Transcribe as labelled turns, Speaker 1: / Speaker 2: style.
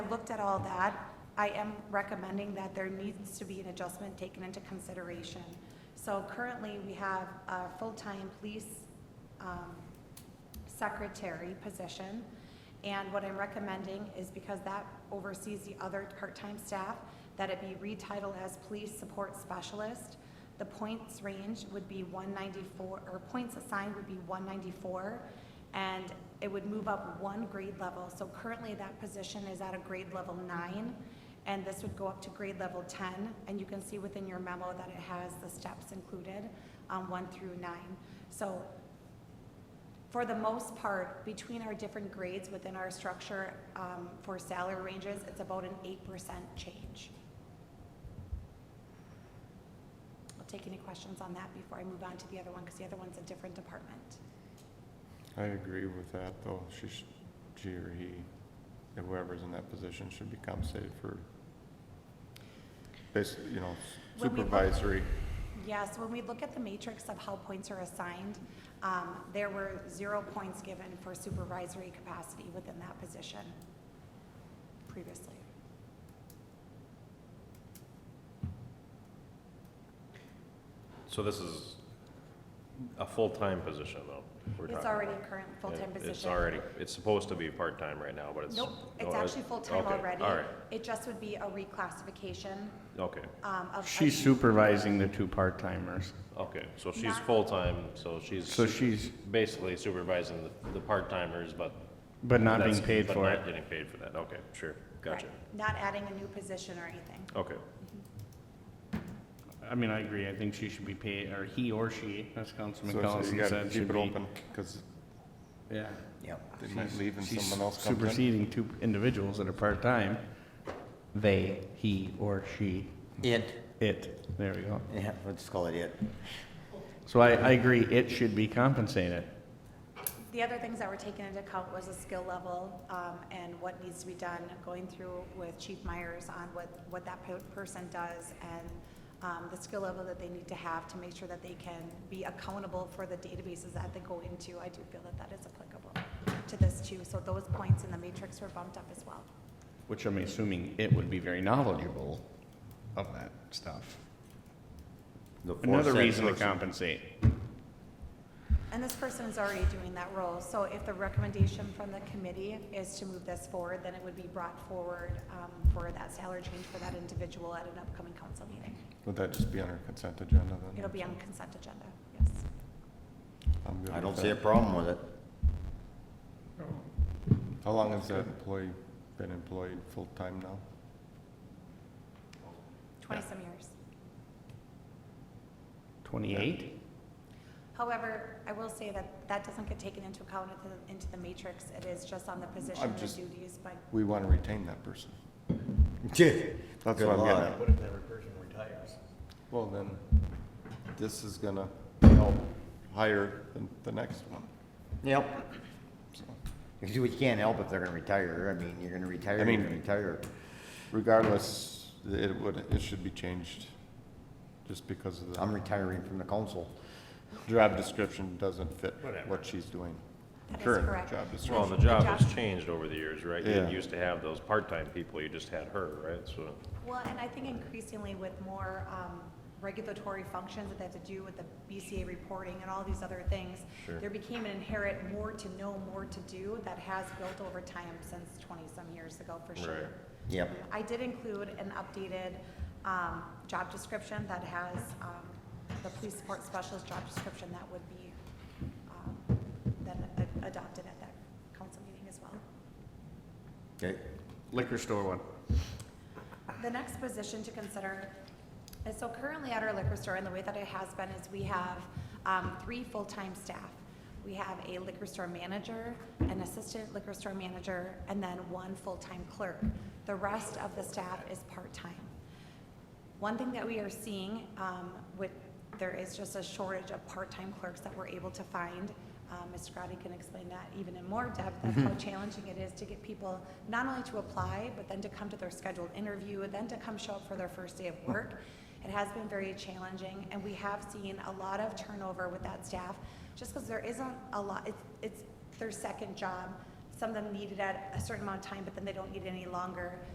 Speaker 1: looked at all that, I am recommending that there needs to be an adjustment taken into consideration. So currently, we have a full-time police um, secretary position. And what I'm recommending is because that oversees the other part-time staff, that it be retitled as police support specialist. The points range would be one ninety-four, or points assigned would be one ninety-four, and it would move up one grade level. So currently, that position is at a grade level nine, and this would go up to grade level ten. And you can see within your memo that it has the steps included, um, one through nine. So for the most part, between our different grades within our structure um, for salary ranges, it's about an eight percent change. I'll take any questions on that before I move on to the other one, because the other one's a different department.
Speaker 2: I agree with that, though. She, sh- she or he, whoever's in that position should be compensated for basically, you know,
Speaker 1: When we-
Speaker 2: supervisory.
Speaker 1: Yes, when we look at the matrix of how points are assigned, um, there were zero points given for supervisory capacity within that position previously.
Speaker 3: So this is a full-time position, though? we're
Speaker 1: It's
Speaker 3: talking
Speaker 1: already a
Speaker 3: about.
Speaker 1: current full-time
Speaker 3: It-
Speaker 1: position.
Speaker 3: It's already, it's supposed to be part-time right now, but it's.
Speaker 1: Nope,
Speaker 3: no,
Speaker 1: it's
Speaker 3: it-
Speaker 1: actually full-time
Speaker 3: okay,
Speaker 1: already.
Speaker 3: All right,
Speaker 1: It just would be a reclassification
Speaker 3: okay,
Speaker 1: um, of.
Speaker 4: She's supervising the two part-timers,
Speaker 3: okay, so she's
Speaker 1: Not-
Speaker 3: full-time, so she's
Speaker 4: so she's,
Speaker 3: basically supervising the, the part-timers, but.
Speaker 4: but not
Speaker 3: that's-
Speaker 4: being paid
Speaker 3: but
Speaker 4: for
Speaker 3: not
Speaker 4: it.
Speaker 3: Getting paid for that, okay, sure, gotcha,
Speaker 1: Right, Not adding a new position or anything.
Speaker 3: okay.
Speaker 4: I mean, I agree, I think she should be paid, or he or she, as Councilman
Speaker 2: So so you
Speaker 4: Collison
Speaker 2: gotta
Speaker 4: said, should
Speaker 2: keep it
Speaker 4: be-
Speaker 2: open, because
Speaker 4: Yeah.
Speaker 2: they might leave and
Speaker 4: She's
Speaker 2: someone else comes in.
Speaker 4: superseding two individuals that are part-time. They, he or she,
Speaker 5: It,
Speaker 4: it, there we go.
Speaker 5: yeah, let's call it it.
Speaker 4: So I, I agree, it should be compensated.
Speaker 1: The other things that were taken into account was the skill level um, and what needs to be done, going through with Chief Myers on what, what that pe- person does and um, the skill level that they need to have to make sure that they can be accountable for the databases that they go into. I do feel that that is applicable to this too. So those points in the matrix were bumped up as well.
Speaker 4: Which I'm assuming it would be very knowledgeable of that stuff.
Speaker 5: The
Speaker 4: Another
Speaker 5: foresaid
Speaker 4: reason to
Speaker 5: person-
Speaker 4: compensate.
Speaker 1: And this person is already doing that role, so if the recommendation from the committee is to move this forward, then it would be brought forward um, for that salary change for that individual at an upcoming council meeting.
Speaker 2: Would that just be on our consent agenda then?
Speaker 1: It'll be on consent agenda, yes.
Speaker 2: I'm good
Speaker 5: I don't
Speaker 2: with
Speaker 5: see a
Speaker 2: that.
Speaker 5: problem with it.
Speaker 2: How long has that employee been employed full-time now?
Speaker 1: Twenty-some years.
Speaker 4: Twenty-eight?
Speaker 1: However, I will say that that doesn't get taken into account into the- into the matrix, it is just on the position and the
Speaker 2: just-
Speaker 1: duties, but
Speaker 2: We wanna retain that person. That's
Speaker 5: Good
Speaker 2: what I'm getting
Speaker 5: Lord.
Speaker 2: at.
Speaker 6: What if that person retires?
Speaker 2: Well, then, this is gonna help hire the, the next one.
Speaker 5: Yep. Because we can't help if they're gonna retire. I mean, you're gonna retire,
Speaker 2: I
Speaker 5: you're
Speaker 2: mean-
Speaker 5: gonna retire.
Speaker 2: Regardless, it would, it should be changed, just because of
Speaker 5: I'm
Speaker 2: the
Speaker 5: retiring from the council.
Speaker 2: job description doesn't fit
Speaker 6: Whatever.
Speaker 2: what she's doing.
Speaker 1: that is
Speaker 2: Current
Speaker 1: correct.
Speaker 2: job description.
Speaker 3: Well, and the job has changed over the years, right? You
Speaker 2: Yeah.
Speaker 3: didn't used to have those part-time people, you just had her, right, so.
Speaker 1: Well, and I think increasingly with more um, regulatory functions that they have to do with the BCA reporting and all these other things,
Speaker 3: Sure.
Speaker 1: there became an inherent more to know, more to do that has built over time since 20-some years ago, for sure.
Speaker 3: Right.
Speaker 5: Yep.
Speaker 1: I did include an updated um, job description that has um, the police support specialist job description that would be um, then a- adopted at that council meeting as well.
Speaker 5: Okay.
Speaker 4: Liquor store one.
Speaker 1: The next position to consider is, so currently at our liquor store, and the way that it has been is we have um, three full-time staff. We have a liquor store manager, an assistant liquor store manager, and then one full-time clerk. The rest of the staff is part-time. One thing that we are seeing, um, with, there is just a shortage of part-time clerks that we're able to find. Um, Ms. Scotty can explain that even in more depth, of how challenging it is to get people not only to apply, but then to come to their scheduled interview, and then to come show up for their first day of work. It has been very challenging, and we have seen a lot of turnover with that staff, just because there isn't a lot, it's, it's their second job, some of them need it at a certain amount of time, but then they don't need it any longer.